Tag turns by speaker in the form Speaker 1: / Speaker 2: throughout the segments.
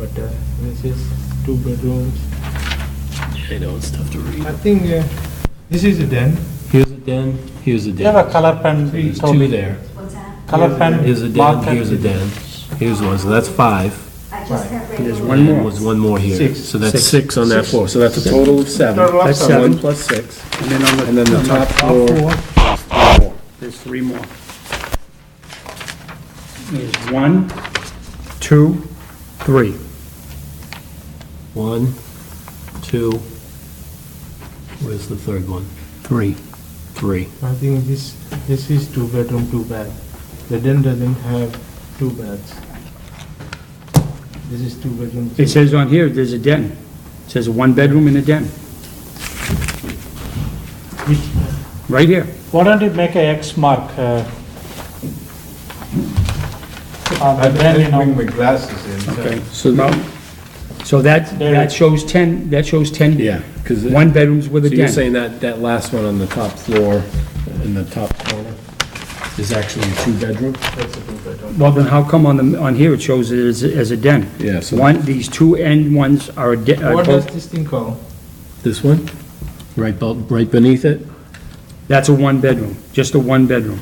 Speaker 1: uh, two bedrooms.
Speaker 2: I know, it's tough to
Speaker 1: I
Speaker 2: read.
Speaker 1: think uh, this is a den.
Speaker 2: Here's a den, here's a
Speaker 3: You have
Speaker 2: den.
Speaker 3: a color pen,
Speaker 2: There's
Speaker 3: Toby.
Speaker 2: two there.
Speaker 4: What's that?
Speaker 3: Color pen.
Speaker 2: Here's a den,
Speaker 3: marker.
Speaker 2: here's a den. Here's one, so that's five.
Speaker 4: I just got rid
Speaker 5: There's
Speaker 4: of.
Speaker 5: one
Speaker 2: And
Speaker 5: more,
Speaker 2: was one more here.
Speaker 5: Six.
Speaker 2: So that's
Speaker 5: Six.
Speaker 2: six on that floor. So that's a total of seven.
Speaker 3: Total of
Speaker 2: That's
Speaker 3: seven.
Speaker 2: One plus six.
Speaker 5: and then on the.
Speaker 2: And then the
Speaker 5: on
Speaker 2: top floor.
Speaker 5: there's three more. There's three more. There's one, two, three.
Speaker 2: One, two, where's the third one?
Speaker 5: Three.
Speaker 2: Three.
Speaker 1: I think this, this is two bedroom, two bath. The den doesn't have two baths. This is two bedroom.
Speaker 5: It says on here, there's a den. It says a one-bedroom and a den, right here.
Speaker 3: Why don't you make a X mark? uh, On the den, you know,
Speaker 1: my glasses in.
Speaker 5: Okay.
Speaker 2: So
Speaker 5: Well, So that,
Speaker 3: There-
Speaker 5: that shows 10, that shows 10.
Speaker 2: Yeah, because, so
Speaker 5: One bedrooms with a
Speaker 2: you're
Speaker 5: den.
Speaker 2: saying that, that last one on the top floor, in the top corner, is actually a two-bedroom?
Speaker 5: Well, then how come on the, on here it shows it as, as a den?
Speaker 2: Yeah, so
Speaker 5: One, these two end ones are a den, are
Speaker 1: What does
Speaker 5: both,
Speaker 1: this thing called?
Speaker 2: this one, right, bel- right beneath it?
Speaker 5: that's a one-bedroom, just a one-bedroom.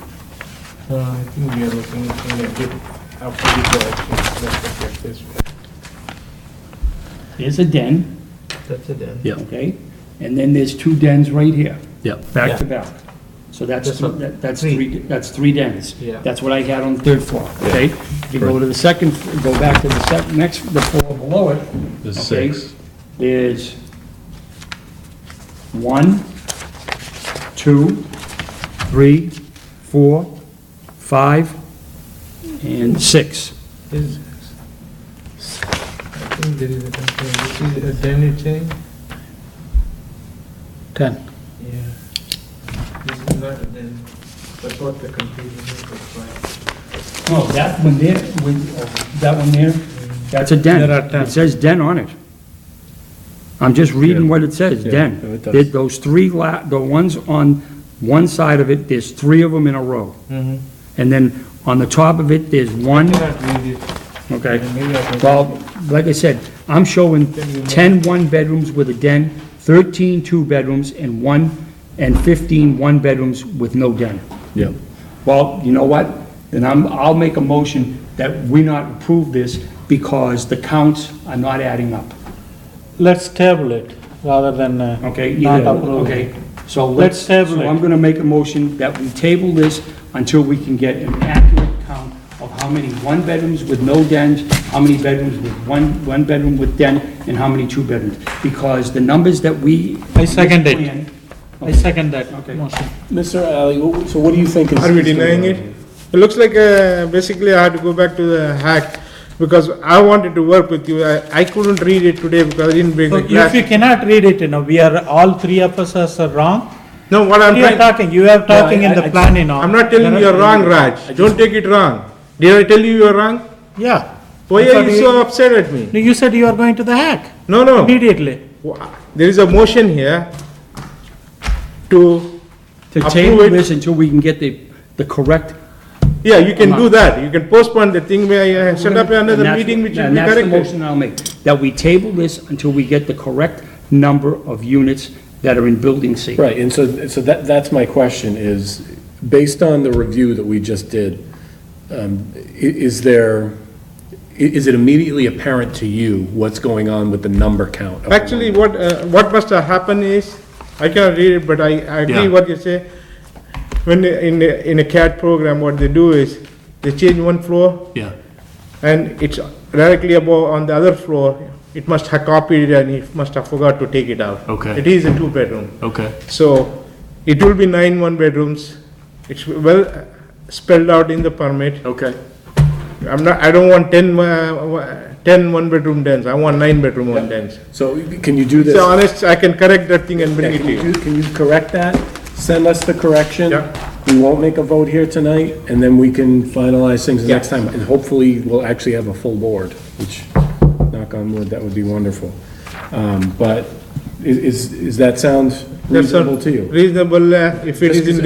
Speaker 1: Uh, I think we are looking at it after the correction. Let's look at this one.
Speaker 5: There's a den,
Speaker 1: That's a den.
Speaker 2: Yeah,
Speaker 5: okay? And then there's two dens right here,
Speaker 2: yeah.
Speaker 5: back to back. So that's,
Speaker 1: That's what-
Speaker 5: that- that's
Speaker 1: three.
Speaker 5: three, that's three dens.
Speaker 1: Yeah.
Speaker 5: That's what I had on the third floor, okay? If you go to the second, go back to the sec, next, the floor below it,
Speaker 2: There's
Speaker 5: Okay.
Speaker 2: six.
Speaker 5: There's one, two, three, four, five, and six.
Speaker 1: This is- I think there is a complaint. This is a eh? den, you're saying?
Speaker 5: Ten.
Speaker 1: Yeah. This is not a den. That's what the confusion is, that's why.
Speaker 5: No, that one there, with, uh, that one there, that's a den.
Speaker 3: There are ten.
Speaker 5: It says den on it. I'm just reading
Speaker 2: Yeah.
Speaker 5: what it says,
Speaker 2: Yeah,
Speaker 5: den.
Speaker 2: no, it does.
Speaker 5: There- Those three la, the ones on one side of it, there's three of them in a row.
Speaker 1: Mm-hmm.
Speaker 5: And then on the top of it, there's one,
Speaker 1: Cannot read it.
Speaker 5: okay?
Speaker 1: Maybe I can-
Speaker 5: Well, like I said, I'm showing 10 one-bedrooms with a den, 13 two-bedrooms, and one, and 15 one-bedrooms with no den.
Speaker 2: Yeah.
Speaker 5: Well, you know what? Then I'm, I'll make a motion that we not approve this because the counts are not adding up,
Speaker 3: let's table it rather than, uh,
Speaker 5: okay?
Speaker 3: Not
Speaker 5: Either-
Speaker 3: approved.
Speaker 5: Okay, so let's,
Speaker 3: Let's
Speaker 5: so
Speaker 3: table it.
Speaker 5: I'm gonna make a motion that we table this until we can get an accurate count of how many one-bedrooms with no dens, how many bedrooms with one, one bedroom with den, and how many two-bedrooms. Because the numbers that we.
Speaker 3: I second it.
Speaker 5: plan-
Speaker 3: I second that
Speaker 5: Okay.
Speaker 3: motion.
Speaker 2: Mr. Alley, wh- so what do you think is?
Speaker 6: Are we denying it? It looks like, uh, basically I had to go back to the hack, because I wanted to work with you, I, I couldn't read it today because I didn't bring
Speaker 3: So
Speaker 6: the
Speaker 3: if you
Speaker 6: glasses.
Speaker 3: cannot read it, you know, we are, all three of us as are wrong.
Speaker 6: No, what I'm
Speaker 3: You are
Speaker 6: trying,
Speaker 3: talking, you are talking in
Speaker 2: I-
Speaker 3: the
Speaker 2: I-
Speaker 3: plan, you know.
Speaker 6: I'm not telling you you're wrong, Raj, don't take it wrong. Did I tell you you're wrong?
Speaker 3: Yeah.
Speaker 6: Why
Speaker 3: That's
Speaker 6: are
Speaker 3: what
Speaker 6: you so upset at me?
Speaker 3: No, You said you are going to the hack
Speaker 6: No, no,
Speaker 3: immediately.
Speaker 6: there is a motion here to,
Speaker 5: To
Speaker 6: Approve
Speaker 5: table
Speaker 6: it.
Speaker 5: this until we can get the, the correct.
Speaker 6: yeah, you can do that, you can postpone the thing, where I set up
Speaker 5: and
Speaker 6: another
Speaker 5: that's-
Speaker 6: meeting which will
Speaker 5: And
Speaker 6: be
Speaker 5: that's the
Speaker 6: corrected.
Speaker 5: motion I'll make, that we table this until we get the correct number of units that are in building C.
Speaker 2: Right, and so, so that, that's my question is, based on the review that we just did, um, i- is there, i- is it immediately apparent to you what's going on with the number count? of the
Speaker 6: Actually, what, uh, what must have happened is, I cannot read it, but I, I agree
Speaker 2: Yeah.
Speaker 6: what you say. When, they- in, a- in a CAD program, what they do is, they change one floor,
Speaker 2: Yeah,
Speaker 6: and it's directly above on the other floor, it must have copied it and it must have forgot to take it out.
Speaker 2: Okay.
Speaker 6: It is a two-bedroom,
Speaker 2: okay,
Speaker 6: so it will be nine one-bedrooms, it's well spelled out in the permit.
Speaker 2: okay.
Speaker 6: I'm not, I don't want ten, uh, ten one-bedroom dens, I want nine-bedroom one dens.
Speaker 2: So can you do this?
Speaker 6: So honest, I can correct that thing and bring
Speaker 2: Yeah,
Speaker 6: it to you.
Speaker 2: Can you- can you correct that? Send us the correction?
Speaker 6: Yeah.
Speaker 2: We won't make a vote here tonight, and then we can finalize things the
Speaker 6: Yeah.
Speaker 2: next time. And hopefully, we'll actually have a full board, which, knock on wood, that would be wonderful. Um, But i- is, is that sound
Speaker 6: That's all
Speaker 2: reasonable to you?
Speaker 6: Reasonable, uh, if it
Speaker 2: Just
Speaker 6: is in